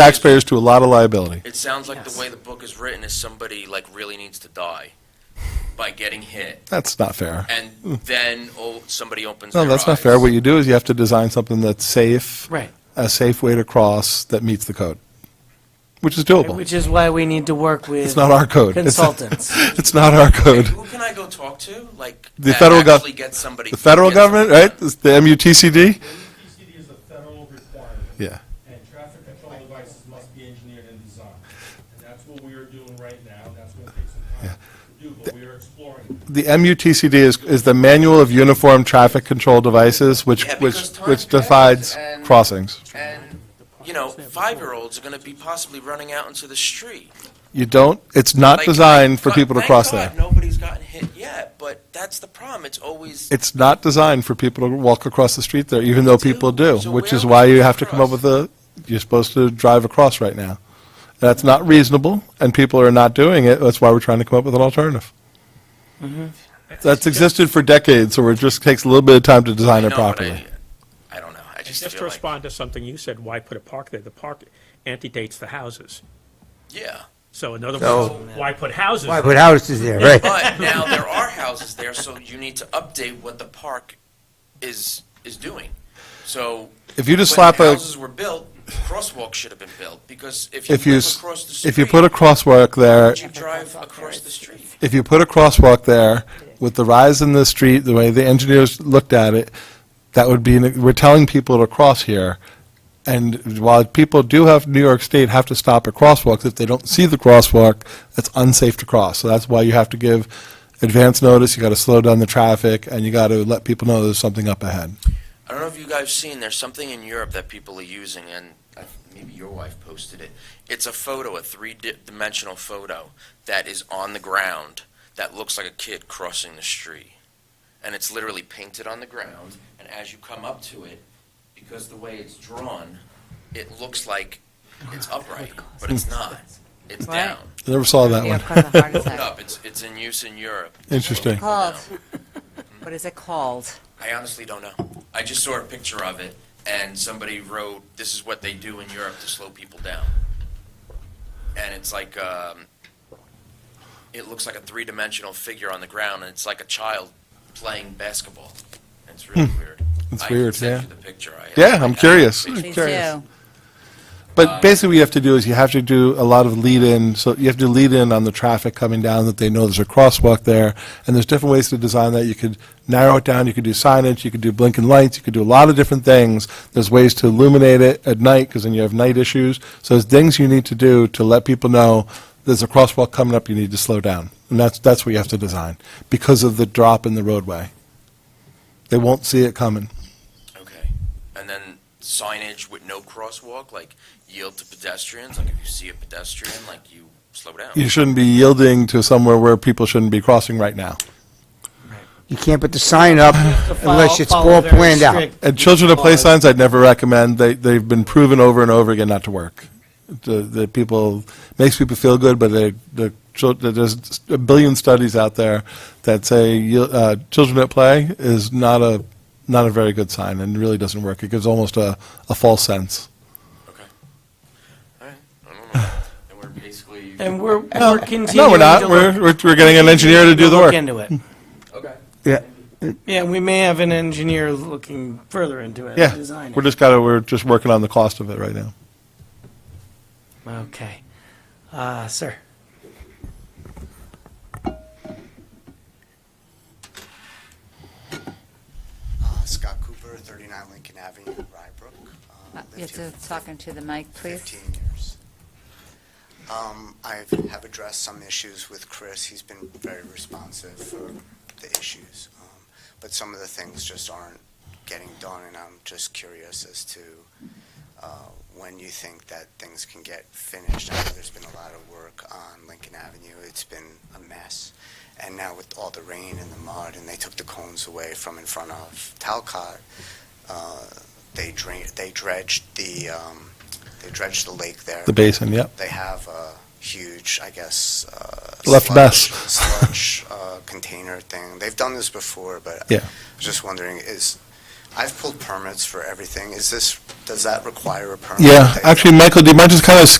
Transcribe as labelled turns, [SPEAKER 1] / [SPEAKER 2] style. [SPEAKER 1] taxpayers to a lot of liability.
[SPEAKER 2] It sounds like
[SPEAKER 3] Yes.
[SPEAKER 2] the way the book is written is somebody like really needs to die by getting hit,
[SPEAKER 1] That's not fair.
[SPEAKER 2] and then oh, somebody opens.
[SPEAKER 1] Hmm. No,
[SPEAKER 2] their
[SPEAKER 1] that's not
[SPEAKER 2] eyes.
[SPEAKER 1] fair. What you do is you have to design something that's safe,
[SPEAKER 3] Right.
[SPEAKER 1] a safe way to cross that meets the code, which is doable.
[SPEAKER 3] Which is why we need to work with.
[SPEAKER 1] It's not our code. It's-
[SPEAKER 3] Consultants.
[SPEAKER 1] It's not our code.
[SPEAKER 2] Who can I go talk to? Like
[SPEAKER 1] The
[SPEAKER 2] that
[SPEAKER 1] federal gov-
[SPEAKER 2] actually gets somebody.
[SPEAKER 1] The federal
[SPEAKER 2] gets them-
[SPEAKER 1] government, right? It's The MUTCD?
[SPEAKER 4] PCD is a federal requirement,
[SPEAKER 1] Yeah.
[SPEAKER 4] and traffic control devices must be engineered and designed. And that's what we are doing right now, and that's gonna take some time to do, but we are exploring that.
[SPEAKER 1] The MUTCD is, is the Manual of Uniform Traffic Control Devices, which,
[SPEAKER 2] Yeah,
[SPEAKER 1] which,
[SPEAKER 2] because time
[SPEAKER 1] which
[SPEAKER 2] passes
[SPEAKER 1] defines
[SPEAKER 2] and-
[SPEAKER 1] crossings.
[SPEAKER 2] And you know, five-year-olds are going to be possibly running out into the street.
[SPEAKER 1] You don't, it's not
[SPEAKER 2] Like,
[SPEAKER 1] designed for
[SPEAKER 2] but
[SPEAKER 1] people to
[SPEAKER 2] thank
[SPEAKER 1] cross
[SPEAKER 2] God
[SPEAKER 1] there.
[SPEAKER 2] Nobody's gotten hit yet, but that's the problem. It's always
[SPEAKER 1] It's not designed for people to walk across the street there, even though
[SPEAKER 2] They do.
[SPEAKER 1] people do,
[SPEAKER 2] So
[SPEAKER 1] which
[SPEAKER 2] where
[SPEAKER 1] is
[SPEAKER 2] are
[SPEAKER 1] why
[SPEAKER 2] we
[SPEAKER 1] you
[SPEAKER 2] gonna
[SPEAKER 1] have to come up
[SPEAKER 2] cross?
[SPEAKER 1] with a, you're supposed to drive across right now. That's not reasonable, and people are not doing it, that's why we're trying to come up with an alternative.
[SPEAKER 2] Mm-hmm.
[SPEAKER 1] That's existed for decades, so it just takes a little bit of time to design
[SPEAKER 2] I
[SPEAKER 1] it
[SPEAKER 2] know, but
[SPEAKER 1] properly.
[SPEAKER 2] I, I don't know. I just
[SPEAKER 5] Just to
[SPEAKER 2] feel like
[SPEAKER 5] respond to something you said, why put a park there? The park antedates the houses.
[SPEAKER 2] yeah.
[SPEAKER 5] So in other
[SPEAKER 6] So-
[SPEAKER 5] words, why put houses?
[SPEAKER 6] Why
[SPEAKER 5] there?
[SPEAKER 6] put houses there, right?
[SPEAKER 2] But now there are houses there, so you need to update what the park is, is doing. So.
[SPEAKER 1] If you just slap
[SPEAKER 2] When
[SPEAKER 1] a,
[SPEAKER 2] houses were built, crosswalks should have been built, because if you
[SPEAKER 1] if you,
[SPEAKER 2] live
[SPEAKER 1] s-
[SPEAKER 2] across the street.
[SPEAKER 1] if you put a crosswalk there,
[SPEAKER 2] You drive across the street.
[SPEAKER 1] if you put a crosswalk there, with the rise in the street, the way the engineers looked at it, that would be, we're telling people to cross here. And while people do have, New York State have to stop at crosswalks, if they don't see the crosswalk, it's unsafe to cross. So that's why you have to give advance notice, you gotta slow down the traffic, and you gotta let people know there's something up ahead.
[SPEAKER 2] I don't know if you guys have seen, there's something in Europe that people are using, and I- maybe your wife posted it. It's a photo, a three-dimensional photo that is on the ground that looks like a kid crossing the street. And it's literally painted on the ground, and as you come up to it, because the way it's drawn, it looks like it's upright, but it's not. It's
[SPEAKER 7] Right.
[SPEAKER 2] down,
[SPEAKER 1] I Never saw that
[SPEAKER 7] Yeah,
[SPEAKER 1] one.
[SPEAKER 7] cause of heart
[SPEAKER 2] Look it
[SPEAKER 7] attack.
[SPEAKER 2] up. It's, it's in use in Europe.
[SPEAKER 1] Interesting.
[SPEAKER 7] Called, what is it called?
[SPEAKER 2] I honestly don't know. I just saw a picture of it, and somebody wrote, "This is what they do in Europe to slow people down." And it's like, um, it looks like a three-dimensional figure on the ground, and it's like a child playing basketball. It's really weird.
[SPEAKER 1] It's
[SPEAKER 2] I
[SPEAKER 1] Hmm. weird,
[SPEAKER 2] sent
[SPEAKER 1] yeah.
[SPEAKER 2] you the picture. I-
[SPEAKER 1] Yeah,
[SPEAKER 2] I-
[SPEAKER 1] I'm
[SPEAKER 2] I-
[SPEAKER 1] curious.
[SPEAKER 7] Please
[SPEAKER 1] Curious.
[SPEAKER 7] do.
[SPEAKER 1] But basically, what you have to do is you have to do a lot of lead-in, so you have to lead-in on the traffic coming down, that they know there's a crosswalk there, and there's different ways to design that. You could narrow it down, you could do signage, you could do blinking lights, you could do a lot of different things. There's ways to illuminate it at night, because then you have night issues. So there's things you need to do to let people know there's a crosswalk coming up, you need to slow down. And that's, that's what you have to design, because of the drop in the roadway. They won't see it coming.
[SPEAKER 2] Okay. And then signage with no crosswalk, like yield to pedestrians. Like if you see a pedestrian, like you slow down.
[SPEAKER 1] You shouldn't be yielding to somewhere where people shouldn't be crossing right now.
[SPEAKER 6] You can't put the sign up unless it's
[SPEAKER 3] Follow- follow
[SPEAKER 6] all
[SPEAKER 3] very
[SPEAKER 6] planned out.
[SPEAKER 3] strict
[SPEAKER 1] And children to play
[SPEAKER 3] laws.
[SPEAKER 1] signs, I'd never recommend. They, they've been proven over and over again not to work. The, the people, makes people feel good, but they, the, chil- there's a billion studies out there that say you- uh, children at play is not a, not a very good sign and really doesn't work. It gives almost a, a false sense.
[SPEAKER 2] Okay. All right. I don't know. And we're basically.
[SPEAKER 3] And we're, we're continuing to
[SPEAKER 1] No, we're not.
[SPEAKER 3] look-
[SPEAKER 1] We're, we're we're getting an engineer to do the
[SPEAKER 3] Look
[SPEAKER 1] work.
[SPEAKER 3] into it.
[SPEAKER 2] Okay.
[SPEAKER 6] Yeah,
[SPEAKER 3] Yeah, we may have an engineer looking further into it,
[SPEAKER 1] Yeah,
[SPEAKER 3] design
[SPEAKER 1] we're
[SPEAKER 3] it.
[SPEAKER 1] just gotta, we're just working on the cost of it right now.
[SPEAKER 3] Okay. Uh, sir,
[SPEAKER 8] Uh, Scott Cooper, 39 Lincoln Avenue, Rybrook. Uh,
[SPEAKER 7] Uh,
[SPEAKER 8] lived
[SPEAKER 7] You have
[SPEAKER 8] here
[SPEAKER 7] to
[SPEAKER 8] for
[SPEAKER 7] talk into the mic, please.
[SPEAKER 8] 15 years. Um, I have addressed some issues with Chris. He's been very responsive for the issues. Um, But some of the things just aren't getting done, and I'm just curious as to uh, when you think that things can get finished. I know there's been a lot of work on Lincoln Avenue. It's been a mess. And now with all the rain and the mud, and they took the cones away from in front of Talcott, uh, they drain, they dredged the, um, they dredged the lake there.
[SPEAKER 1] The basin, yep.
[SPEAKER 8] They have a huge, I guess, uh,
[SPEAKER 1] Left
[SPEAKER 8] sludge-
[SPEAKER 1] mess.
[SPEAKER 8] sludge uh, container thing. They've done this before, but
[SPEAKER 1] Yeah.
[SPEAKER 8] I was just wondering, is I've pulled permits for everything. Is this, does that require a permit?
[SPEAKER 1] Yeah,
[SPEAKER 8] that you-
[SPEAKER 1] actually, Michael, do you mind just kind of